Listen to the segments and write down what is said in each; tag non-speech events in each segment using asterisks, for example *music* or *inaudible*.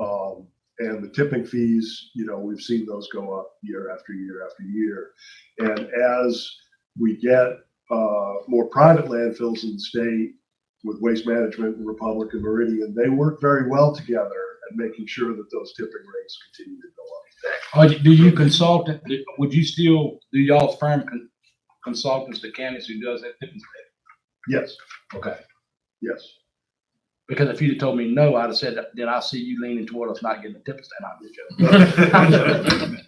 Um, and the tipping fees, you know, we've seen those go up year after year after year. And as we get uh, more private landfills in the state with Waste Management and Republic and Meridian, they work very well together at making sure that those tipping rates continue to go up. Or do you consult, would you still, do y'all's firm con- consultants, the counties who does that? Yes, Okay. yes. Because if you'd have told me no, I'd have said, then I see you leaning toward us not getting the tips, and I'm *laughs* just joking.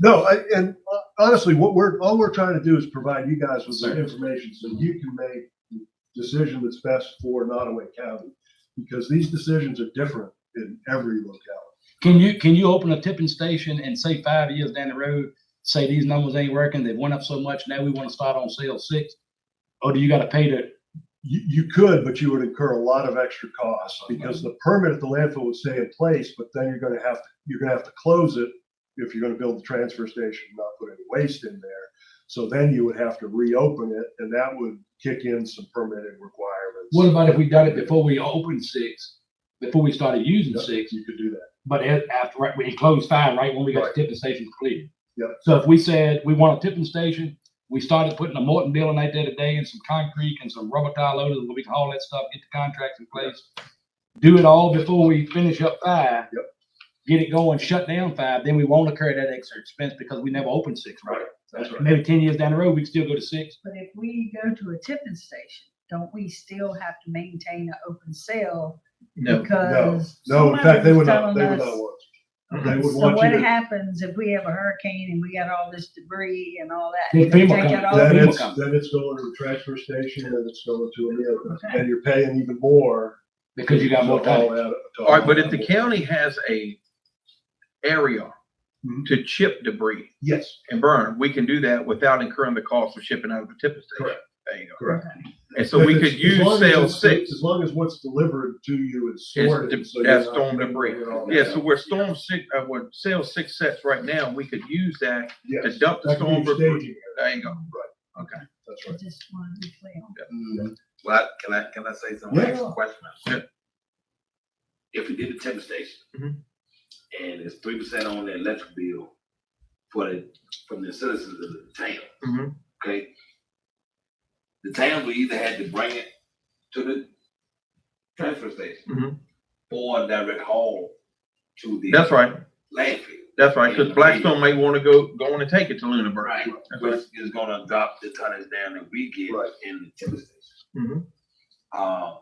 No, I, and uh, honestly, what we're, all we're trying to do is provide you guys with some Sure. information so you can make the decision that's best for Nottaway County. Because these decisions are different in every locality. Can you, can you open a tipping station and say five years down the road, say these numbers ain't working, they went up so much, now we want to start on sale six? Or do you gotta pay to, You, you could, but you would incur a lot of extra costs because the permit at the landfill would stay in place, but then you're gonna have, to you're gonna have to close it if you're gonna build the transfer station, and not put any waste in there. So then you would have to reopen it and that would kick in some permitting requirements. what about if we done it before we opened six? Before we started using Yeah. six, You could do that. But it, after, right, we closed five, right, when we got the tipping station cleared. Yep. So if we said we want a tipping station, we started putting a Morton building out there today and some concrete and some rubber tile loaders, where we can haul that stuff, get the contracts in place. Do it all before we finish up five. Yep. Get it going, shut down five, then we won't incur that extra expense because we never opened six, right? That's right. Maybe ten years down the road, we can still go to six. But if we go to a tipping station, don't we still have to maintain an open sale? No. Because. No, in fact, they would not, somebody they would not was telling us- want you. They would So want you what to, happens if we have a hurricane and we got all this debris and all that? Then They FEMA take comes. it all? then people it's, come. then it's going to the transfer station and it's going to a other, Okay. and you're paying even more. Because you got more to all time. that- to All right, but if the that. county has a area Mhm. to chip debris Yes, and burn, we can do that without incurring the cost of shipping out of the tipping station. Correct. There you go. correct. And so If we it's- could as long use as sale it's- six As long as what's delivered to you is is sorted. so de- you're as not storm paying debris. for it all. Yeah, so where storm six, uh, where sale six sets right now, we could use that Yes. to dump the That could be storm debris. staging area. There you go. Right. Okay. That's I right. just wanted to be clear. Well, I- can I, can I say something? Yeah. Ask a question. Yeah. If we did the temp station. Mhm. And it's three percent on the electric bill for the, from the citizens of the Mhm. Mm-hmm, town. Okay? The town will either had to bring it to the transfer Mhm. mm-hmm. station. Or direct haul to the That's right. landfill. That's right. Cause Blackstone may want to go, go on and take it to Lunenburg. Right, That's right. which is gonna drop the tonnage down that we get Right. in the timber station. Mm-hmm. Mhm. Uh,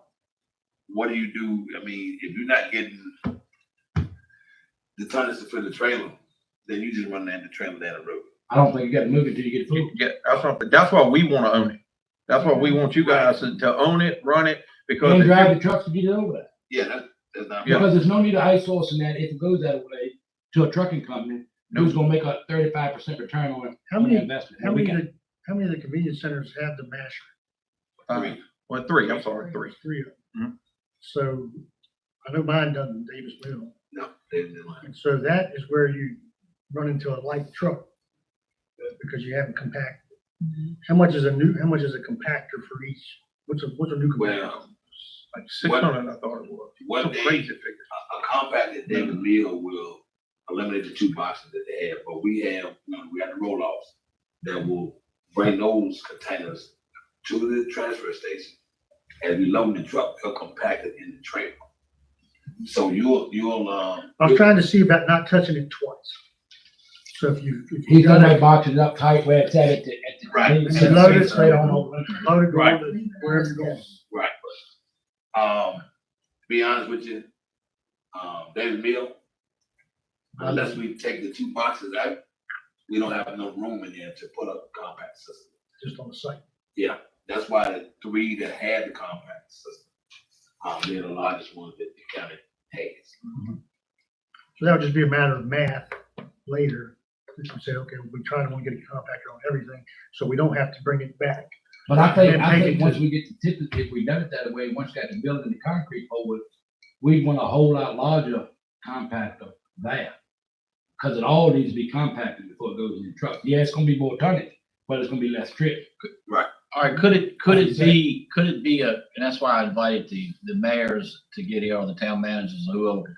what do you do, I mean, if you're not getting the tonnage to fill the trailer, then you just run that the trailer down the road. I don't think you gotta move it till you get food. Yeah, that's why, that's why we want to own it. That's why we Mm-hmm. want you guys to, to own it, run it, because. And if you- drive the trucks to get it over there. Yeah, that, that's not. Yeah. Because there's no need to outsourcing that if it goes that way to a trucking company, who's gonna make a thirty-five percent return on it. How on the many, investment. how And we many, can- of the- how many of the convenience centers have the masher? Uh, Well, three, I'm sorry, three. Three of Mhm. them. So I know mine doesn't, Davis Mill. No, they- they like- And so that is where you run into a light truck uh, because you haven't compacted. How much is a new, how much is a compactor for each? What's a, what's a new compactor? Well, Like six hundred, I thought it was. one Some day, crazy Mm-hmm. figure. a, a compacted David Mill will eliminate the two boxes that they have, but we have, you know, we have the roll offs that will bring those containers to the transfer station. And we load the truck, they'll compact it in the trailer. So you'll, you'll, um. I was trying to see about not touching it twice. So if you, if you He's got done that it boxes up tight where it's at it, at the. Right. convenience And center, load it. straight on over. loaded, Right. rolled, wherever you're going. Right. Um, to be honest with you, um, David Mill, unless we take the two boxes out, we don't have enough room in there to put up a compact system. just on the site. That's why the three that had the compact system, um, they're the largest ones that the county has. So that would just be a matter of math later. We can say, okay, we try to want to get a compactor on everything, so we don't have to bring it back. But I think, And I take think it once to- we get the tip, if we done it that way, once got the building, the concrete over, we want a whole lot larger compactor there. Cause it all needs to be compacted before it goes in the truck. Yeah, it's gonna be more tonnage, but it's gonna be less trip. All right, could it, could it be, could it be a, and that's why I invited the, the mayors to get here, or the town managers, or whoever,